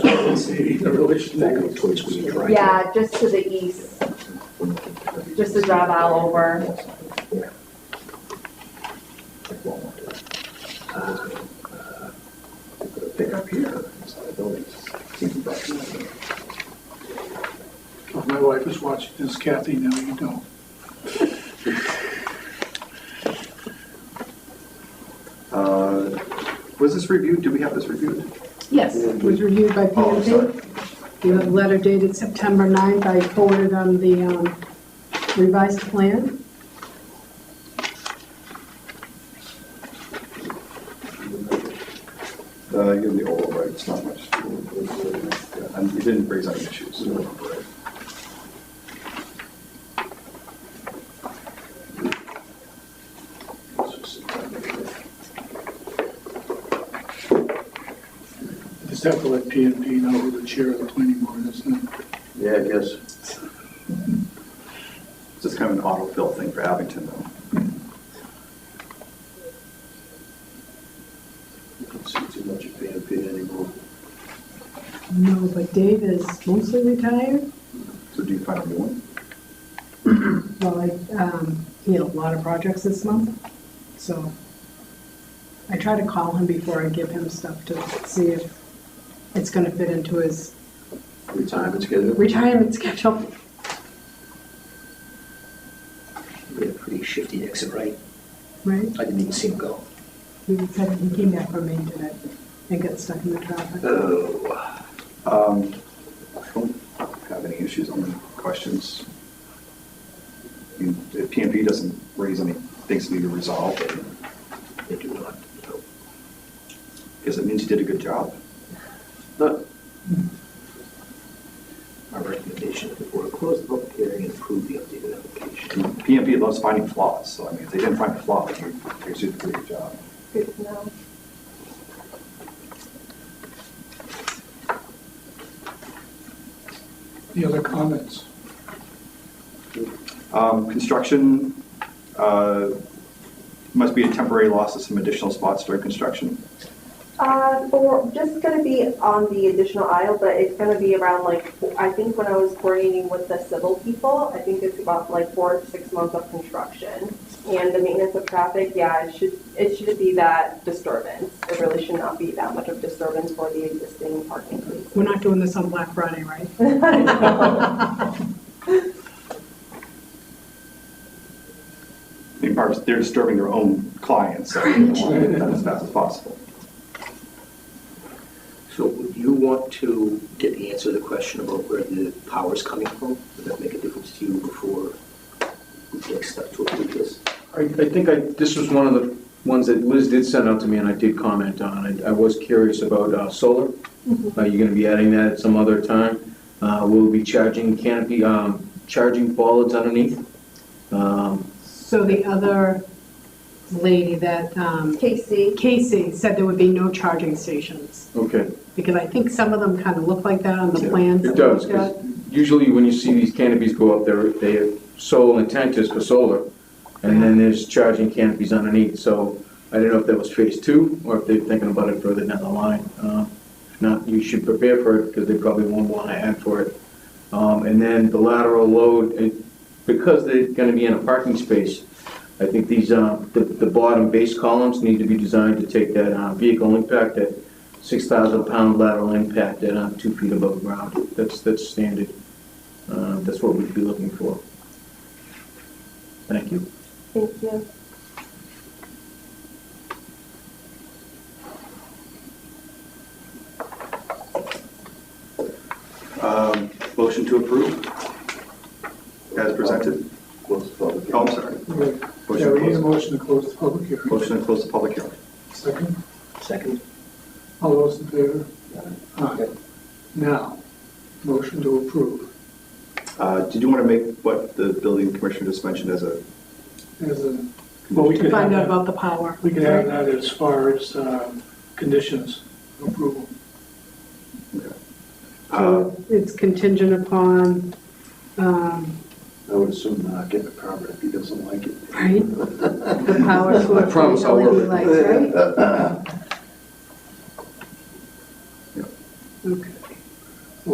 Maybe the relation that goes towards we try. to- Yeah, just to the east, just to drive all over. Yeah. Like Walmart. Uh, uh, Pick up here, it's not a building. Seems like- If my wife is watching this, Kathy, now you don't. Uh, Was this reviewed? Did we have this reviewed? Yes, it was reviewed by Oh, I'm sorry. PMP. You have a letter dated September 9th, I forwarded on the um, revised plan. Uh, you have the oral, right? It's not much. Yeah, And you didn't raise any issues. so we're all right. Just have to let PNP know who the chair of the planning board is. and Yeah, I guess. It's just kind of an autofill thing for Abington, though. You don't see too much of PMP anymore. No, but Dave is mostly retired. So do you find a new one? Well, I, um, he had a lot of projects this month, so I try to call him before I give him stuff to see if it's going to fit into his Retirement schedule? retirement schedule. We had a pretty shifty exit, right? Right? I didn't even see him go. He said he came back from Maine today and got stuck in the traffic. Uh. Oh. Um, I don't have any issues, only questions. I mean, If PMP doesn't raise any things that need to be resolved, then They do not. no. I guess it means you did a good job. No, Our recommendation of the board close the public hearing and approve the updated I application. mean, PMP loves finding flaws, so I mean, if they didn't find a flaw, then you you did a pretty good job. Good to know. The other comments? Um, Construction, uh, must be a temporary loss of some additional spots during construction. Uh, for, just gonna be on the additional aisle, but it's gonna be around like, I think when I was coordinating with the civil people, I think it's about like four to six months of construction. And the maintenance of traffic, yeah, it should, it should be that disturbance. It really should not be that much of disturbance for the existing parking places. We're not doing this on Black Friday, right? I mean, part- they're disturbing their own clients, so they want to get that as fast as possible. So would you want to get the answer to the question about where the power's coming from? Would that make a difference to you before we take steps to approve this? I, I think I, this was one of the ones that Liz did send out to me and I did comment on. I, I was curious about, uh, solar. Mm-hmm. Are you gonna be adding that at some other time? Uh, we'll be charging canopy, um, charging bollards underneath. Um, So the other lady that, um, Casey, Casey said there would be no charging stations, okay. because I think some of them kind of look like that on the Yeah, plans. It does, 'cause usually when you see these canopies go up, their, their sole intent is for solar, and then there's charging canopies underneath, so I don't know if that was phase two, or if they're thinking about it further down the line. Uh, If not, you should prepare for it, because they probably won't want to add for it. Um, And then the lateral load, it- because they're going to be in a parking space, I think these, uh, the the bottom base columns need to be designed to take that uh, vehicle impact, that 6,000 pound lateral impact at uh, two feet above ground. That's, that's standard. Uh, That's what we'd be looking for. Thank you. thank you. Um, Motion to approve as presented. Close the public Oh, hearing. I'm sorry. Yeah, we need a Motion to close- motion to close the public hearing. motion to close the public hearing. Second, Second? all those in favor? Aye. Now, motion to approve Uh, Did you want to make what the building commissioner just mentioned as a, as a, well, we To could have find out that, about the power. we could have that as far as um, conditions of approval. uh, So it's contingent upon, um, I would assume not getting a permit if he doesn't like it. right? The power I promise source, I'll LED work lights, right? it. Okay.